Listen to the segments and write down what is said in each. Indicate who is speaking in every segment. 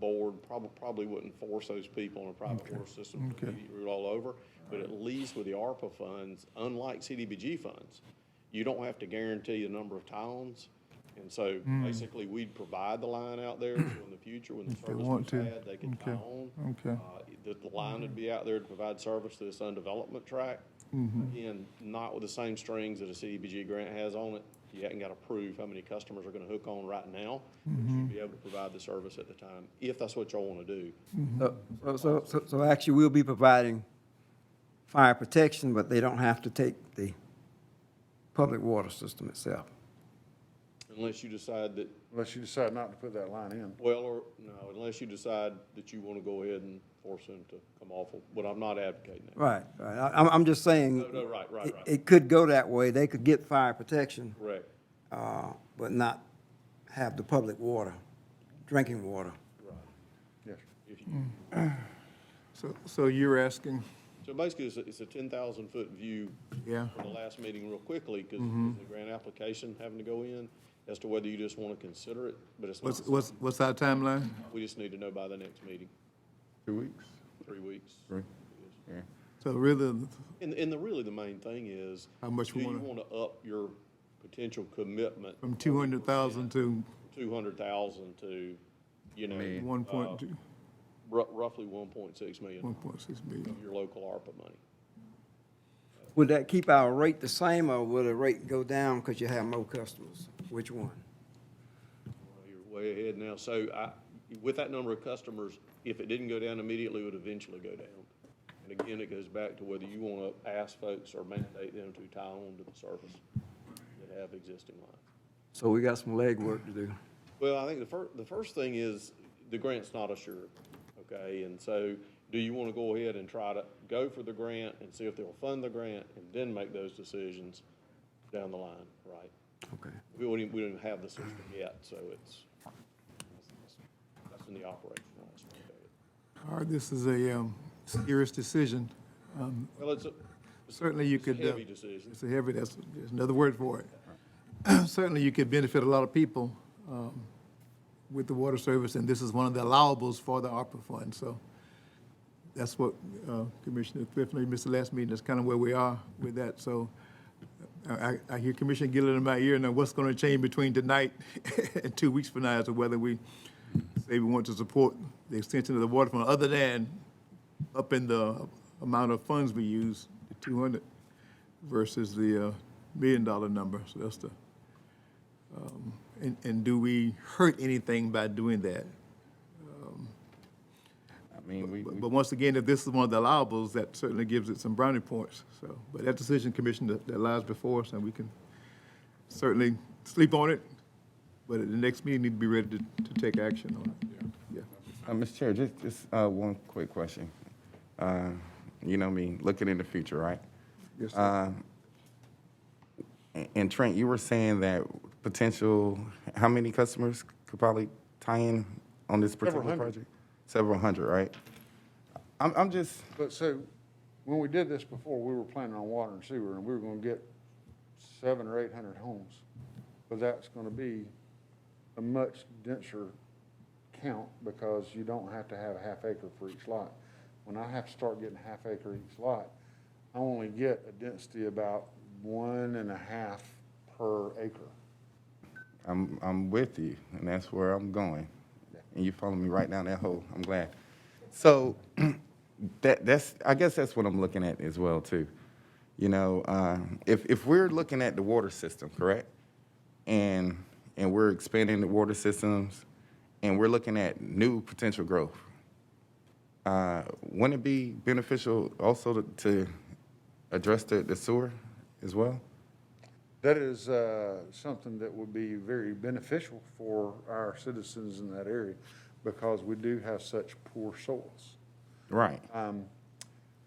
Speaker 1: board probably, probably wouldn't force those people on a private water system to
Speaker 2: Okay.
Speaker 1: immediate route all over. But at least with the ARPA funds, unlike CDBG funds, you don't have to guarantee the number of towns. And so
Speaker 2: Hmm.
Speaker 1: basically, we'd provide the line out there, so in the future, when the
Speaker 2: they
Speaker 1: service was
Speaker 2: want to.
Speaker 1: had, they could tie
Speaker 2: Okay.
Speaker 1: on.
Speaker 2: Okay.
Speaker 1: Uh, The, the line would be out there to provide service to this undevelopment tract. Again, not with the same strings that a CDBG grant has on it. You haven't got to prove how many customers are going to hook on right now, but you'd be able to provide the service at the time, if that's what y'all want to do.
Speaker 3: So- So, so, so actually, we'll be providing fire protection, but they don't have to take the public water system itself.
Speaker 1: Unless you decide that,
Speaker 4: Unless you decide not to put that line in.
Speaker 1: well, or, no, unless you decide that you want to go ahead and force them to come off of, but I'm not advocating that.
Speaker 3: Right, right. I- I'm, I'm just saying.
Speaker 1: No, no, right, right,
Speaker 3: it-
Speaker 1: right.
Speaker 3: It could go that way. They could get fire protection,
Speaker 1: Correct.
Speaker 3: uh, but not have the public water, drinking water.
Speaker 4: Yes.
Speaker 1: If you,
Speaker 2: So, so you're asking,
Speaker 1: So basically, it's a, it's a ten thousand foot view.
Speaker 2: Yeah.
Speaker 1: From the last meeting real quickly, because
Speaker 2: Mm-hmm.
Speaker 1: the grant application having to go in, as to whether you just want to consider it, but it's
Speaker 2: what's,
Speaker 1: not,
Speaker 2: what's, what's our timeline?
Speaker 1: we just need to know by the next meeting,
Speaker 4: Two weeks?
Speaker 1: three weeks.
Speaker 4: Three. Yeah.
Speaker 2: So really,
Speaker 1: And, and the, really, the main thing is.
Speaker 2: How much we
Speaker 1: Do you
Speaker 2: wanna-
Speaker 1: want to up your potential commitment
Speaker 2: from 200,000 to
Speaker 1: two hundred thousand to, you know,
Speaker 2: 1.2,
Speaker 1: ru- roughly one point six million,
Speaker 2: 1.6 million?
Speaker 1: of your local ARPA money?
Speaker 3: Would that keep our rate the same, or would the rate go down because you have more customers? Which one?
Speaker 1: Well, You're way ahead now. So I, with that number of customers, if it didn't go down immediately, it would eventually go down. And again, it goes back to whether you want to ask folks or mandate them to tie on to the service that have existing lines.
Speaker 3: So we got some legwork to do.
Speaker 1: Well, I think the first, the first thing is the grant's not assured, okay? And so do you want to go ahead and try to go for the grant and see if they'll fund the grant and then make those decisions down the line, right?
Speaker 3: Okay.
Speaker 1: We don't even, we don't even have the system yet, so it's, that's in the operational aspect of it.
Speaker 2: All right, this is a um, serious decision. Um,
Speaker 1: Well, it's a, it's
Speaker 2: Certainly you
Speaker 1: it's a
Speaker 2: could. uh,
Speaker 1: heavy decision.
Speaker 2: It's a heavy, that's, there's another word for it. Certainly you could benefit a lot of people um, with the water service, and this is one of the allowables for the ARPA fund, so that's what uh, Commissioner Thrift, missed the last meeting, that's kind of where we are with that, so uh, I, I- I hear Commissioner Gillett in my ear, now what's going to change between tonight and two weeks from now as to whether we say we want to support the extension of the water fund, other than upping the amount of funds we use, the 200 versus the uh, million dollar number, so that's the, um, and, and do we hurt anything by doing that? Um,
Speaker 4: I mean, we,
Speaker 2: But but once again, if this is one of the allowables, that certainly gives it some brownie points, so. But that decision, Commissioner, that- that lies before us, and we can certainly sleep on it, but at the next meeting, need to be ready to, to take action on it. Yeah.
Speaker 5: Uh, Mr. Chair, just, just uh, one quick question. Uh, you know me, looking in the future, right?
Speaker 2: Yes, sir.
Speaker 5: Um, a- and Trent, you were saying that potential, how many customers could probably tie in on this particular
Speaker 4: hundred.
Speaker 5: project? Several hundred, right? I'm, I'm just,
Speaker 4: but so, when we did this before, we were planning on water and sewer, and we were gonna get seven or eight hundred homes. But that's gonna be a much denser count, because you don't have to have a half acre for each lot. When I have to start getting half acre each lot, I only get a density about one and a half per acre.
Speaker 5: I'm, I'm with you, and that's where I'm going. And you follow me right down that hole. I'm glad. So that, that's, I guess that's what I'm looking at as well too. You know, uh, if, if we're looking at the water system, correct? And, and we're expanding the water systems and we're looking at new potential growth. Uh, wouldn't it be beneficial also to, to address the, the sewer as well?
Speaker 4: That is uh, something that would be very beneficial for our citizens in that area because we do have such poor soils.
Speaker 5: Right.
Speaker 4: Um,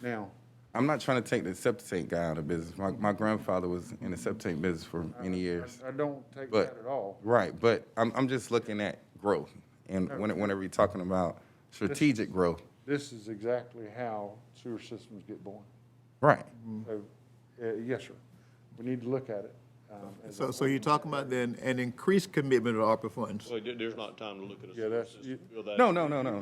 Speaker 4: Now,
Speaker 5: I'm not trying to take the septic tank guy out of business. My, my grandfather was in the septic tank business for many years.
Speaker 4: I- I don't take
Speaker 5: But-
Speaker 4: that at all.
Speaker 5: Right, but I'm, I'm just looking at growth. And when- whenever you're talking about strategic growth,
Speaker 4: This is exactly how sewer systems get born.
Speaker 2: Mm-hmm.
Speaker 5: right.
Speaker 4: So, uh, yes, sir. We need to look at it. um, as
Speaker 2: So,
Speaker 4: a-
Speaker 2: so you're talking about then an increased commitment of ARPA funds?
Speaker 1: Well, there- there's not time to look at a
Speaker 4: Yeah,
Speaker 1: sewer
Speaker 4: that's- you-
Speaker 1: system. Bill, that-
Speaker 5: No, no, no, no.